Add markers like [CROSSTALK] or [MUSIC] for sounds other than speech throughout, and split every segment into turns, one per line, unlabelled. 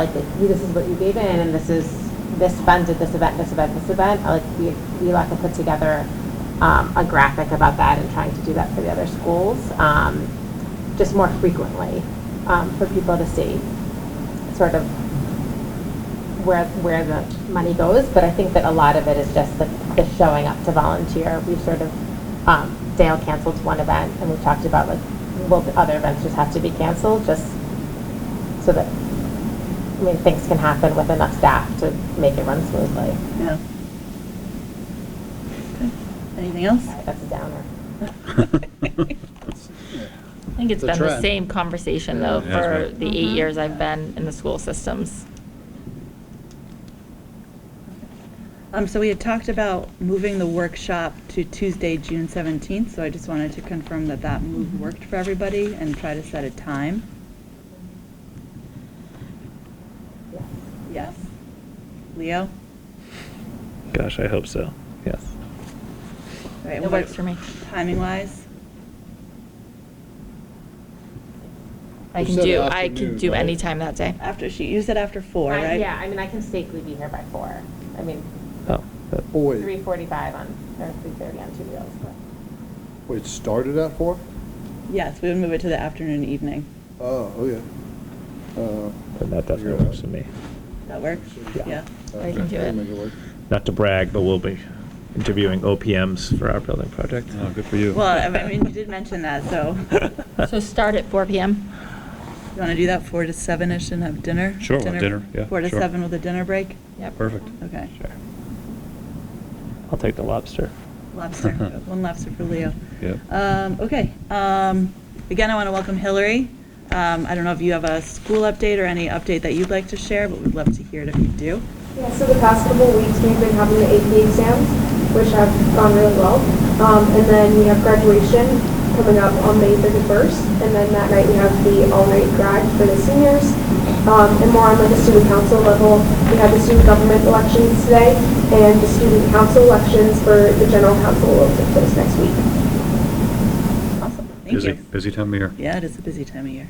like, like, you- this is what you gave in, and this is, this funded this event, this event, this event, I like, we, we like to put together, um, a graphic about that and trying to do that for the other schools, um, just more frequently, um, for people to see, sort of where, where the money goes, but I think that a lot of it is just the, the showing up to volunteer. We've sort of, um, Dale canceled one event, and we've talked about, like, will the other events just have to be canceled, just so that, I mean, things can happen with enough staff to make it run smoothly.
Yeah. Okay. Anything
[LAUGHS]
else?
Sorry, That's a downer.
I think it's
It's a
been the
trend.
same conversation though
It has
for
been.
the eight years I've been in the school systems.
Um, so we had talked about moving the workshop to Tuesday, June seventeenth, so I just wanted to confirm that that move worked for everybody and try to set a time.
Yes.
Yes. Leo?
Gosh, I hope so. Yes.
All right,
It
what-
works for me.
Timing wise?
I
You
can
said
do, I
afternoon,
can do
right?
any time
[LAUGHS]
that day.
After she, you said after four,
I-
right?
Uh, Yeah, I mean, I can safely be here by four. I mean,
Oh, that-
Wait,
three forty-five on, or three thirty on two wheels, but.
wait, started at four?
Yes, we would move it to the afternoon, evening.
Oh, oh, yeah. Uh,
then that definitely
figure it
works
out.
for me.
That work?
Yeah.
Yeah.
I can do
I'll
it.
make work.
Not to brag, but we'll be interviewing OPMs for our building project.
Oh, good for you.
Well, I mean, you did mention that,
[LAUGHS]
so
[LAUGHS]
So start at four PM.
you want to do that four to seven-ish and have dinner?
Sure, we'll have dinner, yeah,
Four to
sure.
seven with a dinner break?
Yep.
Perfect.
Okay.
Sure. I'll take the lobster.
[LAUGHS]
Lobster, one lobster for Leo.
Yep.
Um, Okay. Um, Again, I want to welcome Hillary. Um, I don't know if you have a school update or any update that you'd like to share, but we'd love to hear it if you do.
Yeah, so the past couple of weeks, we've been having the AP exams, which have gone really well. Um, and then we have graduation coming up on May 31st. And then that night, we have the all-night grad for the seniors. Um, and more on like the student council level, we had the student government elections today and the student council elections for the general council will take place next week.
Awesome. Thank
Busy,
you.
busy time of year.
Yeah, it is a busy time of year.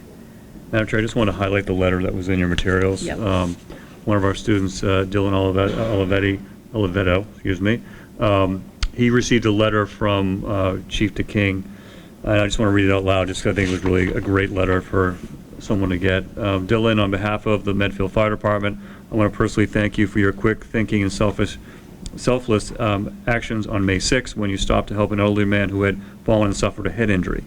Madam Chair, I just want to highlight the letter that was in your materials.
Yep.
Um, One of our students, uh, Dylan Olivet- Olivetti, Olivetto, excuse me, um, he received a letter from uh, Chief DeKing. And I just want to read it out loud, just 'cause I think it was really a great letter for someone to get. Um, Dylan, on behalf of the Medfield Fire Department, I want to personally thank you for your quick thinking and selfish selfless um, actions on May 6th when you stopped to help an elderly man who had fallen and suffered a head injury.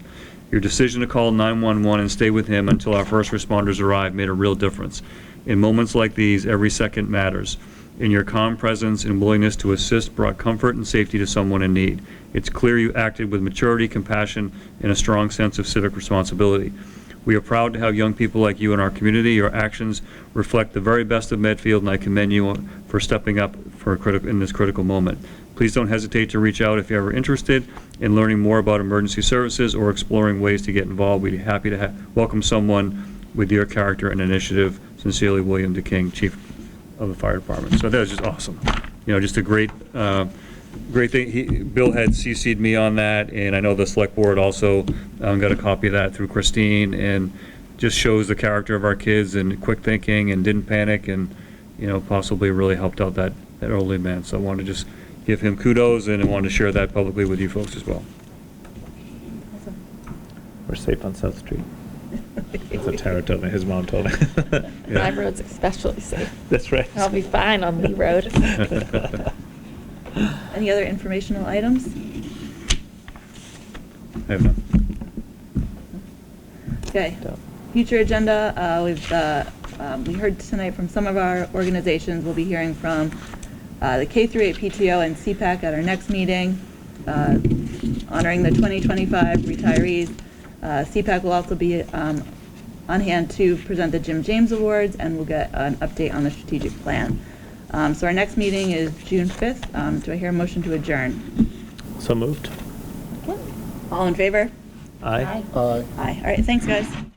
Your decision to call 911 and stay with him until our first responders arrived made a real difference. In moments like these, every second matters. In your calm presence and willingness to assist brought comfort and safety to someone in need. It's clear you acted with maturity, compassion, and a strong sense of civic responsibility. We are proud to have young people like you in our community. Your actions reflect the very best of Medfield, and I commend you for stepping up for a critical, in this critical moment. Please don't hesitate to reach out if you're ever interested in learning more about emergency services or exploring ways to get involved. We'd be happy to ha- welcome someone with your character and initiative. Sincerely, William DeKing, Chief of the Fire Department. So that was just awesome. You know, just a great, uh, great thing. He, Bill had CC'd me on that, and I know the select board also um, got a copy of that through Christine, and just shows the character of our kids and quick thinking and didn't panic and, you know, possibly really helped out that, that elderly man. So I wanted to just give him kudos and I wanted to share that publicly with you folks as well.
We're safe on South Street. That's what Tara told me, his mom told me.
My road's especially safe.
[LAUGHS] That's right.
I'll be fine on
[LAUGHS]
Lee Road.
[LAUGHS] Any other informational items?
I have none.
Okay.
Don't.
Future agenda, uh, we've, uh, um, we heard tonight from some of our organizations, we'll be hearing from uh, the K through 8 PTO and CPAC at our next meeting, uh, honoring the 2025 retirees. Uh, CPAC will also be um, on hand to present the Jim James Awards, and we'll get an update on the strategic plan. Um, So our next meeting is June 5th. Um, Do I hear a motion to adjourn?
So moved.
All in favor?
Aye.
Aye.
Aye. All right, thanks, guys.